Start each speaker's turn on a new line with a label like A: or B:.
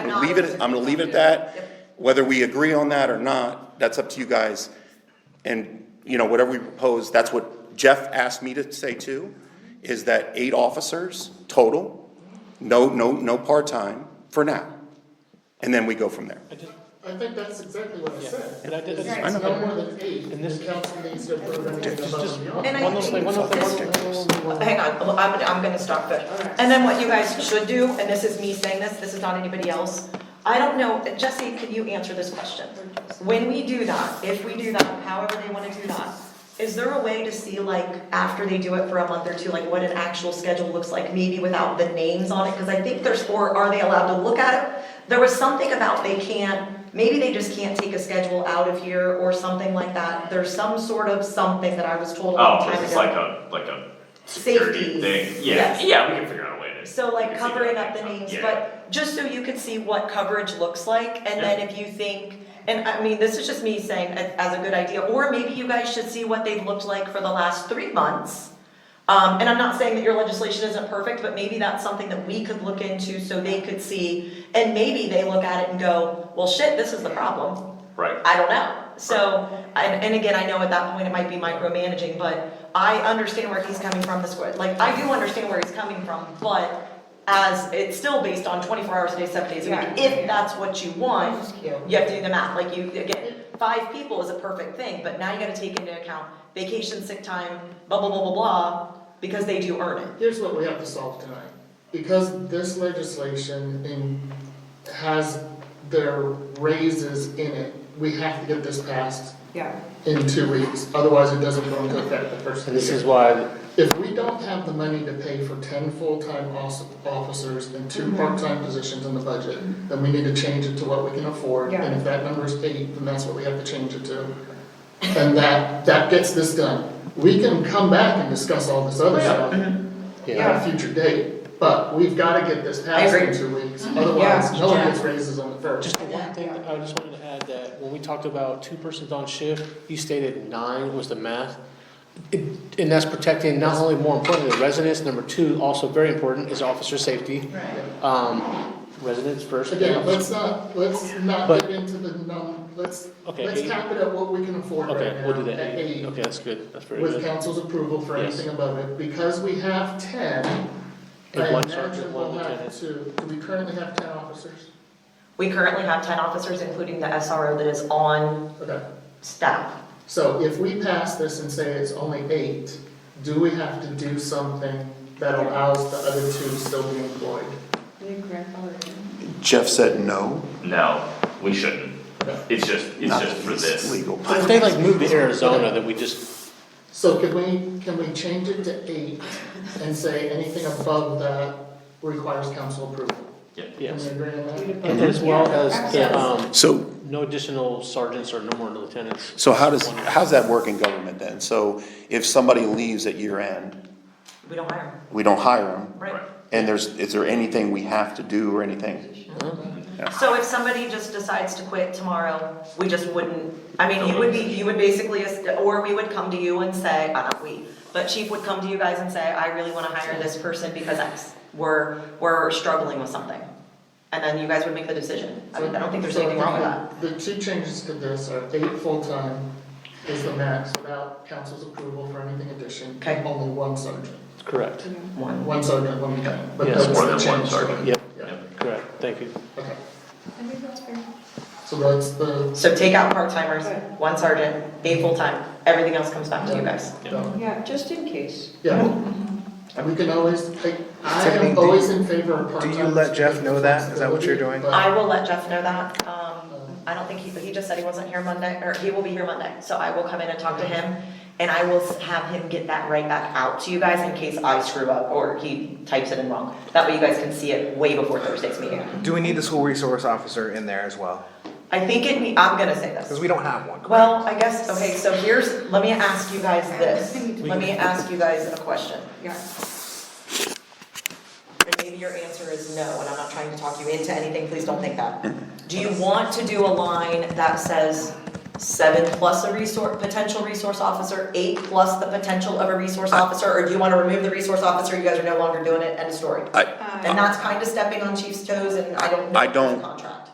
A: not
B: gonna leave it, I'm gonna leave it at that. Whether we agree on that or not, that's up to you guys. And, you know, whatever we propose, that's what Jeff asked me to say too, is that eight officers total, no, no, no part-time for now. And then we go from there.
C: I just,
A: I think that's exactly what I
C: but I
A: said.
C: did, I
A: It's
C: just,
B: I know.
A: no more than eight,
C: And
A: and
C: this-
A: the council needs to approve anything above
C: just
A: and
C: one
A: beyond.
D: And I
C: little thing, one little thing, one little thing. one little thing.
D: Hang on, well, I'm, I'm gonna stop there. And then what you guys should do, and this is me saying this, this is not anybody else, I don't know, Jesse, could you answer this question? When we do that, if we do that, however they wanna do that, is there a way to see like, after they do it for a month or two, like what an actual schedule looks like, maybe without the names on it? Cause I think there's, or are they allowed to look at it? There was something about they can't, maybe they just can't take a schedule out of here or something like that. There's some sort of something that I was told a long
E: Oh,
D: time ago.
E: this is like a, like a
D: Safety,
E: security thing, yeah,
D: yes.
E: yeah, we can figure out a way to.
D: So
E: we
D: like
E: can figure
D: covering
E: out
D: up the
E: how-
D: names,
E: yeah.
D: but just so you could see what coverage looks like, and then if you think, and I mean, this is just me saying a- as a good idea, or maybe you guys should see what they've looked like for the last three months. Um, and I'm not saying that your legislation isn't perfect, but maybe that's something that we could look into so they could see, and maybe they look at it and go, well, shit, this is the problem.
E: Right,
D: I don't know. So, and, and again, I know at that point it might be micromanaging, but I understand where he's coming from this, way. like, I do understand where he's coming from, but as, it's still based on twenty-four hours a day, seven days a week, if that's what you want, you have to do the math, like you, again, five people is a perfect thing, but now you gotta take into account vacation, sick time, blah, blah, blah, blah, blah, because they do earn it.
A: Here's what we have to solve tonight, because this legislation in, has their raises in it, we have to get this passed
F: Yeah.
A: in two weeks, otherwise it doesn't go into effect the first of
G: This
A: the
G: is
A: year.
G: why,
A: If we don't have the money to pay for ten full-time os- officers and
F: Mm-hmm.
A: two part-time positions in the budget, then we need to change it to what we can afford, and
F: Yeah.
A: if that number is eight, then that's what we have to change it to. And that, that gets this done. We can come back and discuss all this other stuff at
C: Mm-hmm.
G: yeah,
A: a future date, but we've gotta get this passed in
D: agree.
A: two weeks, otherwise,
F: Mm-hmm. Yeah.
A: no one gets raises on the first.
C: Just the one thing, I just wanted to add that when we talked about two persons on shift, you stated nine was the math. It- And that's protecting not only more importantly the residents, number two, also very important is officer safety. Um, residents first.
A: Again, let's not, let's not
C: But-
A: get into the num, let's,
C: Okay,
A: let's
C: eight.
A: cap it at what we can afford right now.
C: Okay, we'll do that,
A: at
C: eight. okay, that's good, that's very
A: with
C: good.
A: council's approval for
C: Yes.
A: anything above it, because we have ten.
C: And
A: I
C: one sergeant,
A: imagine
C: one
A: we'll have
C: lieutenant.
A: to, do we currently have ten officers?
D: We currently have ten officers, including the SRO that is on
A: Okay,
D: staff.
A: so if we pass this and say it's only eight, do we have to do something that allows the other two to still be employed?
B: Jeff said no,
E: no, we shouldn't, it's just, it's just for this,
B: legal.
C: But if they like move to Arizona, then we just,
A: So can we, can we change it to eight and say anything above that requires council approval?
E: yeah.
A: Can we
C: yes.
A: agree on that?
C: As well as the, um,
B: So,
C: no additional sergeants or no more lieutenants.
B: so how does, how's that work in government then? So if somebody leaves at year end,
D: We don't hire them,
B: we don't hire them,
D: right?
E: Right.
B: and there's, is there anything we have to do or anything?
D: So if somebody just decides to quit tomorrow, we just wouldn't, I mean, you would be, you would basically, or we would come to you and say, uh, not we, but chief would come to you guys and say, I really wanna hire this person because X, we're, we're struggling with something. And then you guys would make the decision, I mean, I don't think there's
A: So
D: anything wrong with that.
A: The the two changes to this are eight full-time is the max without council's approval for anything addition.
D: Okay.
A: Only one sergeant,
C: Correct,
D: One.
A: one sergeant, one lieutenant, but
C: Yes.
A: that's the change.
E: More than one
A: to it.
E: sergeant.
C: Yep.
A: Yeah,
C: correct, thank you.
A: okay,
F: I think that's fair.
A: so that's the,
D: So take out part-timers, one sergeant, a full-time, everything else comes back to you guys.
A: yeah,
F: Yeah, just in case.
A: yeah. We can always, take- I
G: Tiffany,
A: am
G: do
A: always in favor of
G: do
A: part-time.
G: you let Jeff know that? Is that what you're doing?
A: But-
D: I will let Jeff know that, um, I don't think he, he just said he wasn't here Monday, or he will be here Monday, so I will come in and talk to him. And I will s- have him get that right back out to you guys in case I screw up or he types it in wrong. That way you guys can see it way before Thursday's meeting.
G: Do we need the school resource officer in there as well?
D: I think it, ne- I'm gonna say this.
G: Because we don't have one, correct?
D: Well, I guess, okay, so here's, let me ask you guys this, let me ask you guys a question.
F: Yeah.
D: And maybe your answer is no, and I'm not trying to talk you into anything, please don't think that. Do you want to do a line that says seven plus a resource, potential resource officer, eight plus the potential of a resource officer, or do you wanna remove the resource officer, you guys are no longer doing it, end of story?
B: I,
D: And that's kinda stepping on chief's toes, and I don't know
B: I
D: if that's
B: don't-
D: contract.